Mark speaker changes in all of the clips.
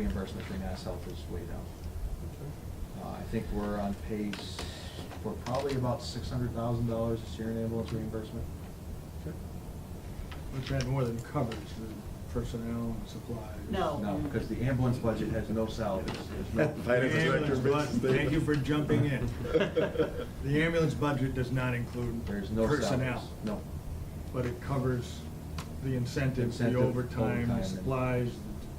Speaker 1: reimbursement through Mass Health is way down. Uh, I think we're on pace for probably about six hundred thousand dollars this year in ambulance reimbursement.
Speaker 2: Which had more than covers the personnel and supplies. Oh.
Speaker 3: No.
Speaker 1: No, because the ambulance budget has no salaries, there's no.
Speaker 2: The ambulance budget, Thank you for jumping in. The ambulance budget does not include
Speaker 1: There's no salaries.
Speaker 2: personnel,
Speaker 1: No.
Speaker 2: but it covers the incentives, the
Speaker 1: Incentive,
Speaker 2: overtime,
Speaker 1: overtime,
Speaker 2: the
Speaker 1: and-
Speaker 2: supplies,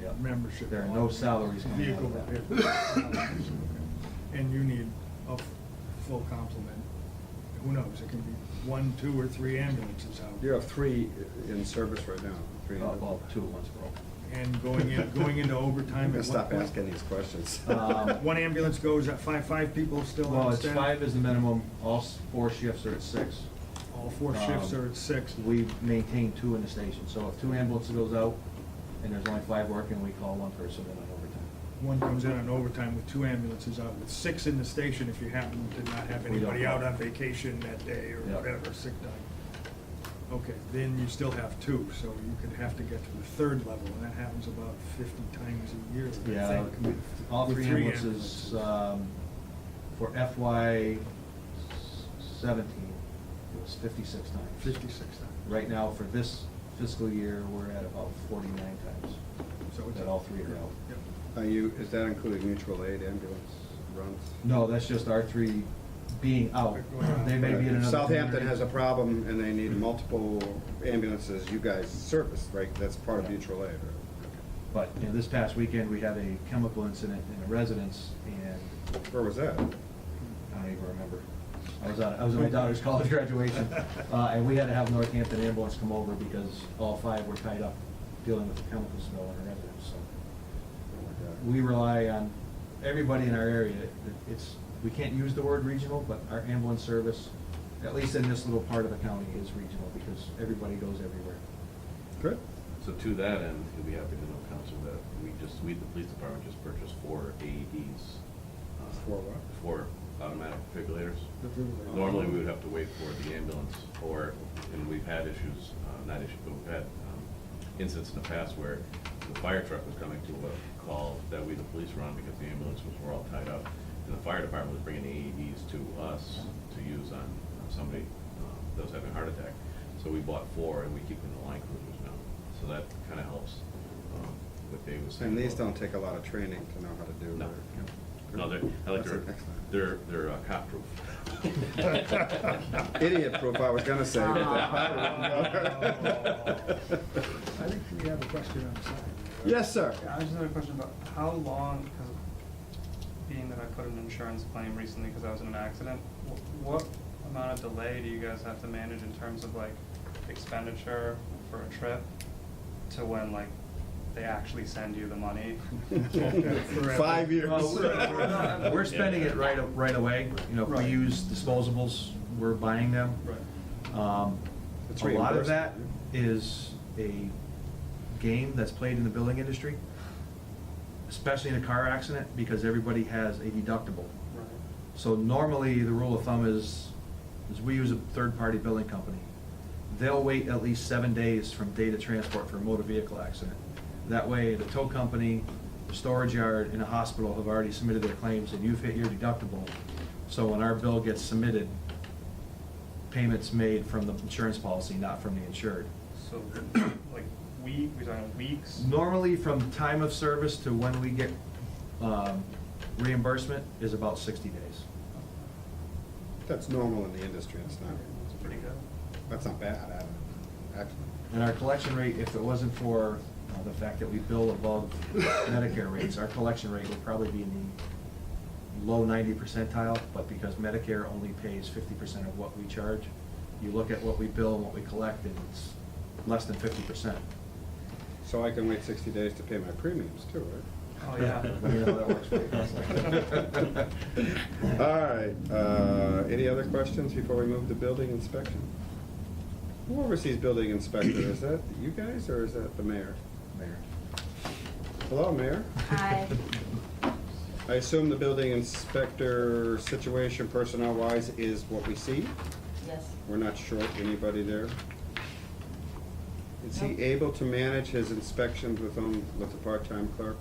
Speaker 1: Yeah.
Speaker 2: the membership.
Speaker 1: There are no salaries coming out
Speaker 2: Vehicle
Speaker 1: of that.
Speaker 2: repair. And you need a f- full complement. Who knows, it can be one, two, or three ambulances out.
Speaker 4: You have three in service right now. three in-
Speaker 1: Uh, Well, two at once, bro.
Speaker 2: And going in, going into
Speaker 4: I'm
Speaker 2: overtime
Speaker 4: gonna
Speaker 2: at
Speaker 4: stop
Speaker 2: one
Speaker 4: asking
Speaker 2: point.
Speaker 4: these questions.
Speaker 1: Um,
Speaker 2: One ambulance goes at five, five people still
Speaker 1: Well,
Speaker 2: on
Speaker 1: it's
Speaker 2: staff.
Speaker 1: five is the minimum, all s- four shifts are at six.
Speaker 2: All four shifts
Speaker 1: Um,
Speaker 2: are at six.
Speaker 1: We maintain two in the station, so if two ambulances goes out and there's only five working, we call one person in on overtime.
Speaker 2: One comes in on overtime with two ambulances out, with six in the station if you happen to not have
Speaker 1: We don't
Speaker 2: anybody out
Speaker 1: know.
Speaker 2: on vacation that day or
Speaker 1: Yeah.
Speaker 2: whatever, sick time. Okay, then you still have two, so you could have to get to the third level, and that happens about fifty times a year, I think.
Speaker 1: Yeah, all
Speaker 2: with
Speaker 1: three ambulances, um, for FY seventeen, it was fifty-six times.
Speaker 2: Fifty-six times.
Speaker 1: Right now, for this fiscal year, we're at about forty-nine times.
Speaker 2: So it's-
Speaker 1: That all three are out.
Speaker 2: Yep.
Speaker 4: Are you, is that including mutual aid ambulance runs?
Speaker 1: No, that's just our three being out. They may be in another.
Speaker 4: Southampton
Speaker 1: community.
Speaker 4: has a problem and they need multiple ambulances. You guys service, right? That's part of
Speaker 1: Yeah.
Speaker 4: mutual aid, right?
Speaker 1: But, you know, this past weekend, we had a chemical incident in a residence, and
Speaker 4: Okay. Where was that? Oh
Speaker 1: I don't even remember. I was on, I was at my daughter's college graduation, uh, and we had to have Northampton ambulance come over because all five were tied up dealing with the chemical smell in her residence, so. We rely on everybody in our area. It- It's, we can't use the word regional, but our ambulance service, at least in this little part of the county, is regional because everybody goes everywhere.
Speaker 4: Good.
Speaker 5: So to that end, you'll be happy to know, Council, that we just, we, the police department just purchased four AEDs. uh,
Speaker 4: Four what?
Speaker 5: Four automatic defibrillators.
Speaker 2: Defibrillator.
Speaker 5: Normally, we would have to wait for the ambulance, or, and we've had issues, uh, not issues, but we've had um, incidents in the past where the fire truck was coming to a call that we, the police, were on because the ambulance was, were all tied up, and the fire department was bringing AEDs to us to use on on somebody um, that was having a heart attack. So we bought four, and we keep them in the line cruisers now, so that kind of helps um, what Dave was saying.
Speaker 4: And these
Speaker 5: about-
Speaker 4: don't take a lot of training to know how to do.
Speaker 5: No.
Speaker 4: their-
Speaker 5: No, they're, I like
Speaker 4: That's
Speaker 5: their,
Speaker 4: it, excellent.
Speaker 5: they're, they're uh, cop proof.
Speaker 4: Idiot proof, I was gonna say.
Speaker 2: Oh. Ah, I think we have a question on the side.
Speaker 4: Yes, sir.
Speaker 6: Yeah, I just had a question about how long, because being that I put an insurance claim recently because I was in an accident, wh- what amount of delay do you guys have to manage in terms of like expenditure for a trip to when like they actually send you the money?
Speaker 4: Five years.
Speaker 1: Well, We're we're spending it right, right away. You know, if we
Speaker 2: Right.
Speaker 1: use disposables, we're buying them. Um,
Speaker 4: It's
Speaker 1: A lot of
Speaker 4: reimbursed.
Speaker 1: that is a game that's played in the billing industry, especially in a car accident, because everybody has a deductible.
Speaker 6: Right.
Speaker 1: So normally, the rule of thumb is, is we use a third-party billing company. They'll wait at least seven days from date of transport for a motor vehicle accident. That way, the tow company, the storage yard, and the hospital have already submitted their claims, and you've hit your deductible. So when our bill gets submitted, payment's made from the insurance policy, not from the insured.
Speaker 6: So like week, we're talking weeks?
Speaker 1: Normally, from time of service to when we get um, reimbursement is about 60 days.
Speaker 4: That's normal in the industry, it's not,
Speaker 6: It's pretty good.
Speaker 4: that's not bad, I don't- actually.
Speaker 1: And our collection rate, if it wasn't for uh, the fact that we bill above Medicare rates, our collection rate would probably be in the low ninety percentile, but because Medicare only pays fifty percent of what we charge, you look at what we bill and what we collect, and it's less than fifty percent.
Speaker 4: So I can wait sixty days to pay my premiums too, right?
Speaker 6: Oh, yeah.
Speaker 1: Let me know how that works for you, Counselor.
Speaker 4: All right, uh, any other questions before we move to building inspection? Who oversees building inspector, is that you guys or is that the mayor?
Speaker 1: Mayor.
Speaker 4: Hello, mayor?
Speaker 7: Hi.
Speaker 4: I assume the building inspector situation personnel-wise is what we see?
Speaker 7: Yes.
Speaker 4: We're not short anybody there? Is he
Speaker 7: No.
Speaker 4: able to manage his inspections with, um, with the part-time clerk?